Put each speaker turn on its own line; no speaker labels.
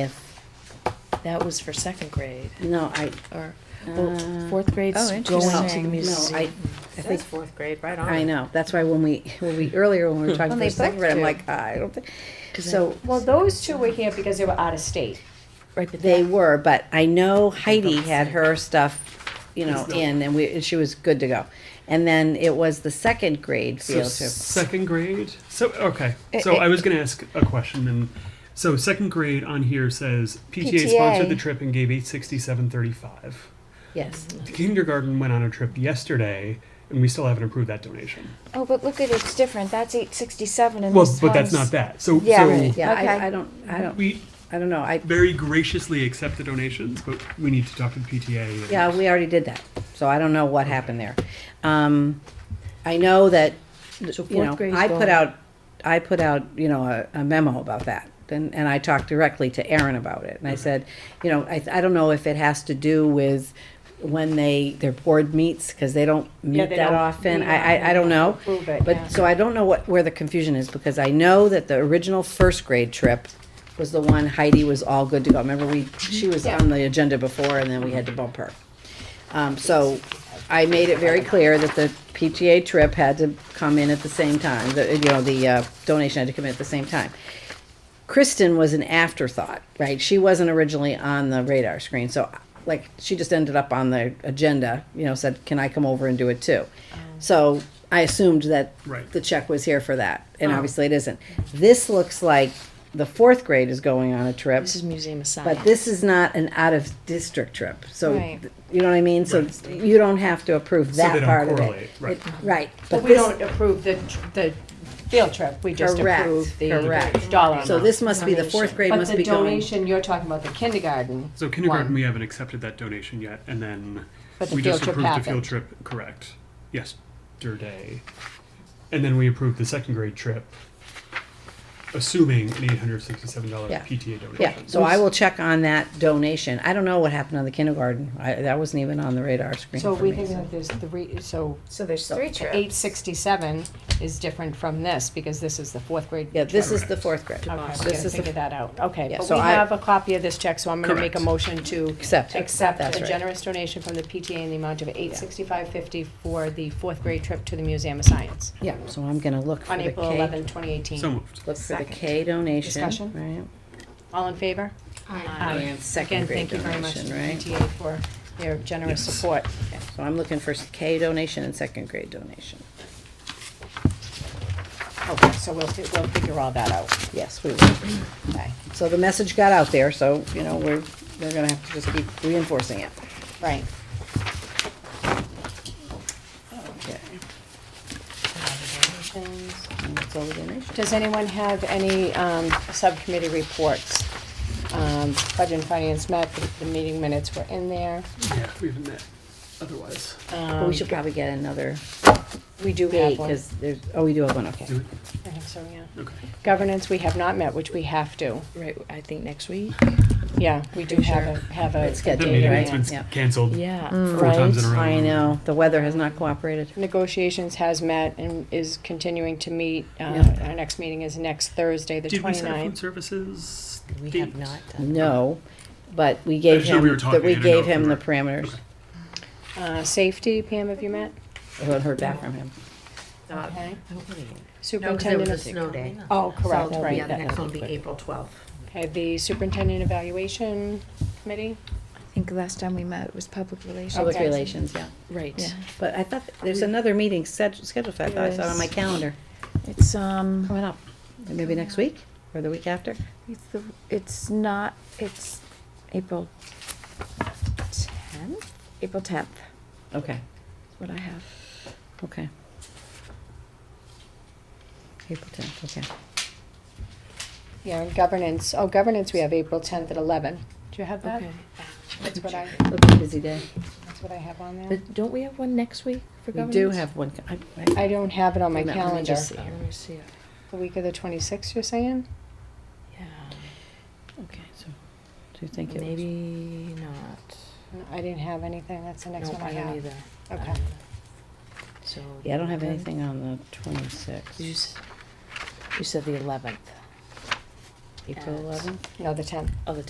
if,
That was for second grade,
no, I,
or, well,
Uh,
fourth grade's
oh,
going to the
interesting. No,
no, I,
museum.
I think fourth grade, right on.
I know, that's why when we, when we, earlier when we were talking
When
for
they booked
second grade, I'm
you.
like, "Ah, I don't think,
'Cause I-
so,
Well, those two were here because they were out of state.
Right, but
they
they,
were, but I know Heidi had her stuff, you know, in, and we, and she was good to go. And then it was the second grade
So
field trip.
second grade. So okay.
It-
So
it-
I was going to ask a question, and so second grade on here says PTA, sponsored
PTA.
the trip and gave eight sixty seven thirty five.
Yes,
The kindergarten went on a trip yesterday, and we still haven't approved that donation.
Oh, but look at it's different. That's eight sixty-seven, and
Well,
this
but that's not
one's-
that. So
Yeah,
so
right.
yeah,
Okay.
I, I don't, I don't,
we
I don't know, I,
very graciously accept the donations, but we need to talk to the PTA. and-
Yeah, we already did that, so I don't know what happened there. Um, I know that,
So
you
fourth
know,
grade's
I put
gone.
out, I put out, you know, a, a memo about that. And, and I talked directly to Aaron about it, and I said, you know, I, I don't know if it has to do with when they, their board meets, cause they don't meet
they
that
don't
often,
meet
I, I, I don't know.
Approve it, yeah.
But, so I don't know what, where the confusion is, because I know that the original first grade trip was the one Heidi was all good to go. Remember, we, she was on the agenda before, and then we had to bump her. Um, so I made it very clear that the PTA trip had to come in at the same time, the, you know, the, uh, donation had to come in at the same time. Kristen was an afterthought, right? She wasn't originally on the radar screen, so like she just ended up on the agenda. You know, said, "Can I come over and do it too?"
Oh.
So I assumed that
Right.
the check was here for that, and
Oh.
obviously it isn't. This looks like the fourth grade is going on a trip,
this is Museum of Science.
but this is not an out of district trip. So
Right.
th- you know what I mean. So you don't have to approve
So
that
they don't
part of it.
correlate, right.
It- right.
But we
this-
don't approve the, tr- the field trip, we just
Correct,
approve the
correct.
dollar
So
amount.
this must be the fourth
Donation.
grade
But
must
the
be going.
donation, you're talking about the kindergarten.
So kindergarten,
one.
we haven't accepted that donation yet, and then
But the
we
field
just
trip
approved the
happened.
field trip, correct, yesterday. And then we approved the second grade trip, assuming an eight hundred sixty-seven dollar
Yeah.
PTA
Yeah,
donation.
so I will check on that donation. I don't know what happened on the kindergarten. I, that wasn't even on the radar screen
So
for
we
me.
think
so-
that there's three, so
So there's three
eight
trips.
sixty-seven is different from this, because this is the fourth grade.
Yeah, this
trip.
is the fourth grade.
Okay, we're
This
gonna
is the
figure that out, okay,
Yeah,
but
so
we
I-
have a copy of this check, so I'm gonna make a
Correct.
motion to.
Accept it.
Accept
That's
a
right.
generous donation from the PTA in the amount of eight sixty-five fifty for the fourth grade trip to the Museum of Science
Yeah, so I'm gonna look for
on
the
April
K,
eleventh, twenty eighteen.
So moved.
look for
Second.
the K donation,
Discussion?
right?
All in favor? Aye.
And second
Again,
grade
thank you very much to the
donation,
PTA for their generous
Yes.
support.
So I'm looking for K donation and second grade donation.
Okay, so we'll, fi- we'll figure all that out.
Yes, we will.
Okay,
So the message got out there, so, you know, we're, they're gonna have to just keep reinforcing it.
right.
Okay,
Donations.
and that's all the donations.
Does anyone have any um, subcommittee reports? Um, Budget and Finance met, the- the meeting minutes were in there. Um,
Yeah, we haven't met otherwise.
But we should probably get another
We do
date,
have one.
cause there's, oh, we do have one, okay.
Do
I think so, yeah.
we? Okay.
Governance, we have not met, which we have to.
Right, I think next week,
Yeah, we do have a, have a.
It's scheduled,
That
Yeah,
meeting
yeah,
has
yeah.
been canceled
yeah.
Mm.
four times in a row.
I know, the weather has not cooperated.
Negotiations has met and is continuing to meet. Uh,
Yeah.
Our next meeting is next Thursday, the
Did we set a food
29th.
services
We
date?
have not done.
No, but we gave
just know
him,
we were
that
talking, I
we
didn't know
gave
if we
him the
were-
parameters.
Uh, Safety, Pam, have you met?
I haven't heard back from him.
Not-
Okay.
I don't believe it. No, 'cause there was
Superintendent.
a
of-
snow day.
Oh, correct,
So,
right.
Yeah, the
that-
next one will be April twelfth.
Okay, the Superintendent Evaluation Committee?
I think last time we met was public relations.
Public
Okay.
relations, yeah.
Right.
Yeah.
But I thought, there's another meeting sched- scheduled, for- I thought I saw it on my
Yes.
calendar,
It's, um,
coming up. Maybe next week or the week after?
it's the, it's not, it's April tenth? April tenth
Okay,
is what I have.
okay. April tenth, okay.
Yeah, and governance, oh, governance, we have April tenth at eleven. Do you have that?
Okay.
That's what I,
It'll be a busy day.
that's what I have on there.
But don't we have one next week for
We
governance?
do have one, co- I, I,
I don't have it on my
Let me
Let me
calendar.
just see, let me see.
The week of the twenty-sixth, you're saying?
Yeah,
okay, so, do you think it was?
maybe not.
No, I didn't have anything, that's the next
No,
one I
don't
have.
either. I
Okay.
don't either. So.
Yeah, I don't have
then-
anything on the
You,
twenty-sixth,
s- you said the eleventh,
April
at-
eleventh?
No, the tenth.
oh, the